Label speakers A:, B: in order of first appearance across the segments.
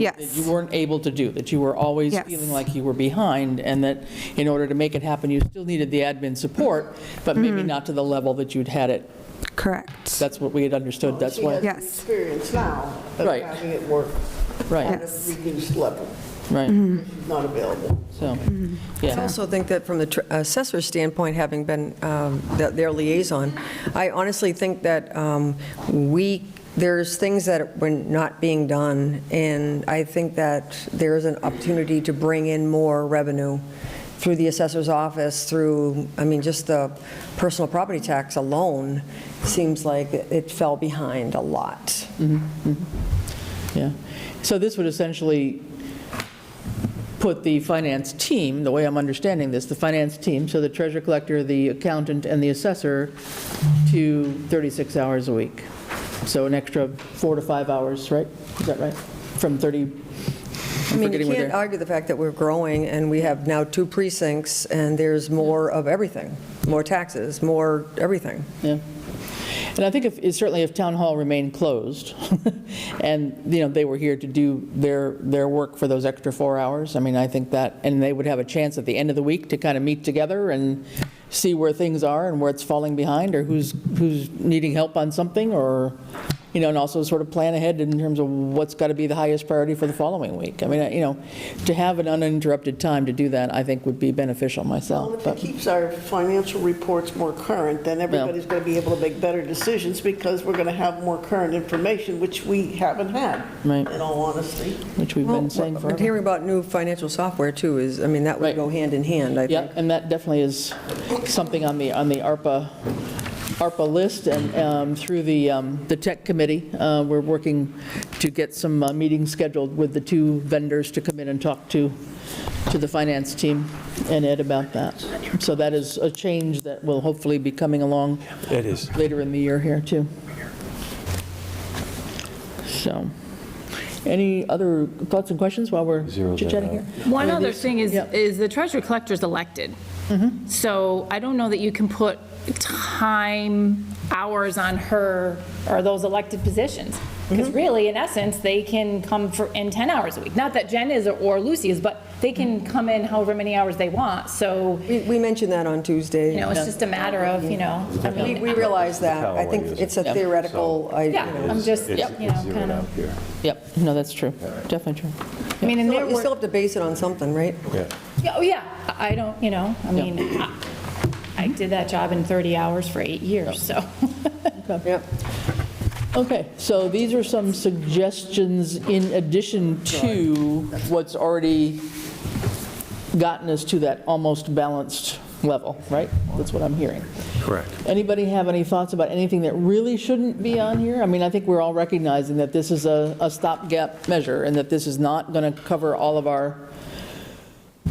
A: that you
B: Yes.
A: weren't able to do, that you were always
B: Yes.
A: feeling like you were behind, and that in order to make it happen, you still needed the admin support, but
B: Mm-hmm.
A: maybe not to the level that you'd had it.
B: Correct.
A: That's what we had understood, that's
C: She has
A: why,
C: the
B: Yes.
C: Experience now of
A: Right.
C: having it work at
A: right,
C: a
B: Yes. Mm-hmm.
C: reduced level,
A: right,
C: She's not available.
A: so,
D: I
A: yeah.
D: also think that from the tr- assessor's standpoint, having been um, th- their liaison, I honestly think that um, we, there's things that were not being done, and I think that there is an opportunity to bring in more revenue through the assessor's office, through, I mean, just the personal property tax alone seems like it fell behind a lot.
A: Yeah. So this would essentially put the finance team, the way I'm understanding this, the finance team, so the treasurer collector, the accountant, and the assessor, to 36 hours a week. So an extra four to five hours, right? Is that right? From 30, I'm
D: I mean,
A: forgetting
D: you
A: what
D: can't
A: they're-
D: argue the fact that we're growing, and we have now two precincts, and there's more of everything, more taxes, more everything.
A: Yeah. And I think if, certainly if Town Hall remained closed, and, you know, they were here to do their, their work for those extra four hours, I mean, I think that, and they would have a chance at the end of the week to kind of meet together and see where things are and where it's falling behind, or who's, who's needing help on something, or, you know, and also sort of plan ahead in terms of what's got to be the highest priority for the following week. I mean, I- you know, to have an uninterrupted time to do that, I think would be beneficial
C: Well,
A: myself,
C: If it
A: but,
C: keeps our financial reports more current, then everybody's going to be able to make better decisions because we're going to have more current information, which we haven't had,
A: Right.
C: in all honesty.
A: which we've been saying
D: But
A: forever.
D: hearing about new financial software, too, is, I mean, that
A: Right.
D: would go hand in hand, I think.
A: Yep, and that definitely is something on the, on the ARPA, ARPA list, and um, through the, um, the tech committee, uh, we're working to get some uh, meetings scheduled with the two vendors to come in and talk to, to the finance team and Ed about that. So that is a change that will hopefully be coming along
E: It is.
A: later in the year here, too. So, any other thoughts and questions while we're
E: Zero that
A: chit-chatting here?
F: One other thing is,
A: Yep.
F: is the treasurer collector's elected.
D: Mm-hmm.
F: So I don't know that you can put time, hours on her or those elected positions. Because
D: Mm-hmm.
F: really, in essence, they can come for, in 10 hours a week. Not that Jen is or Lucy is, but they
D: Mm-hmm.
F: can come in however many hours they want. So,
D: We- We mentioned that on Tuesday.
F: you know, it's just a matter of, you know, I
D: We
F: mean,
D: we realize that.
E: how
D: I
E: I
D: think
E: use it.
D: it's a theoretical, I, you
F: Yeah.
D: know.
F: I'm just,
E: It's-
F: yep, you
E: it's
F: know,
E: zeroed
F: kinda-
E: out here.
A: Yep, no, that's true, definitely true.
F: I mean, in their
D: You
F: work.
D: still have to base it on something, right?
E: Yeah.
F: Yeah, Oh, yeah, I I don't, you know, I mean, I- I did that job in 30 hours for eight years, so.
D: Yep.
A: Okay, so these are some suggestions in addition to what's already gotten us to that almost balanced level, right? That's what I'm hearing.
E: Correct.
A: Anybody have any thoughts about anything that really shouldn't be on here? I mean, I think we're all recognizing that this is a a stopgap measure and that this is not going to cover all of our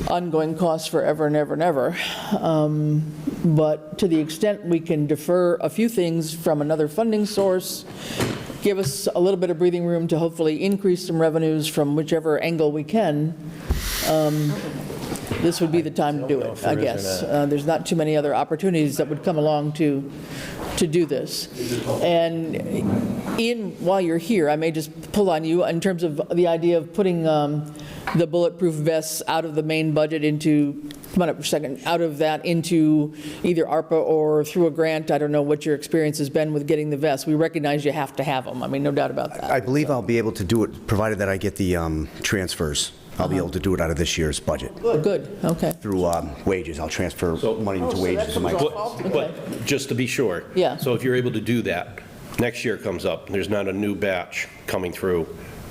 A: ongoing costs forever and ever and ever. Um, But to the extent we can defer a few things from another funding source, give us a little bit of breathing room to hopefully increase some revenues from whichever angle we can, um, this would be the time to do
E: know if
A: it,
E: there
A: I
E: is or
A: guess.
E: not.
A: Uh, There's not too many other opportunities that would come along to, to do this. And Ian, while you're here, I may just pull on you in terms of the idea of putting um, the bulletproof vests out of the main budget into, come on up for a second, out of that into either ARPA or through a grant. I don't know what your experience has been with getting the vests. We recognize you have to have them. I mean, no doubt about that.
G: I believe I'll be able to do it, provided that I get the um, transfers. I'll
A: Uh-huh.
G: be able to do it out of this year's budget.
A: Good, okay.
G: Through um, wages, I'll transfer money
C: Oh,
G: into
C: so that
G: wages. in my-
C: comes off all
H: But, but just to be sure.
A: Yeah.
H: So if you're able to do that, next year comes up, there's not a new batch coming through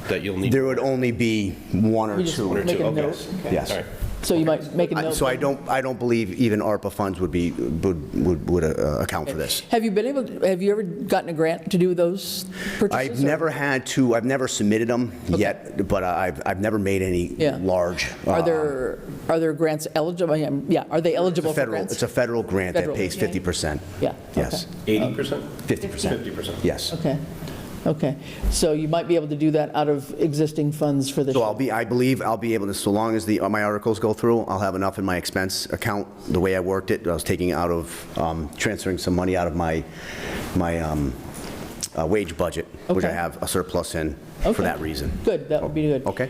H: that you'll need.
G: There would only be one or
A: You just
G: two.
A: make a
H: okay.
A: note.
G: Yes.
H: All right.
A: So you might make a
G: I-
A: note.
G: So I don't, I don't believe even ARPA funds would be, would, would- would uh, account for this.
A: Have you been able, to- have you ever gotten a grant to do those purchases?
G: I've
A: or-
G: never had to, I've never submitted them yet, but I've, I've never made any
A: Yeah.
G: large.
A: Are
G: uh,
A: there, are there grants eligible? I am- Yeah, are they
G: it's a
A: eligible for
G: federal-
A: grants?
G: It's a federal grant that
A: Federal,
G: pays 50%.
A: Yeah,
G: Yes,
H: 80%?
G: 50%.
H: 50%.
G: yes.
A: Okay, okay. So you might be able to do that out of existing funds for this?
G: So I'll be, I believe I'll be able to, so long as the, uh, my articles go through, I'll have enough in my expense account. The way I worked it, I was taking out of, um, transferring some money out of my, my um, uh, wage budget
A: which I
G: Okay.
A: have a surplus in for
G: Okay.
A: that reason.
G: Good, that would be good.
A: Okay.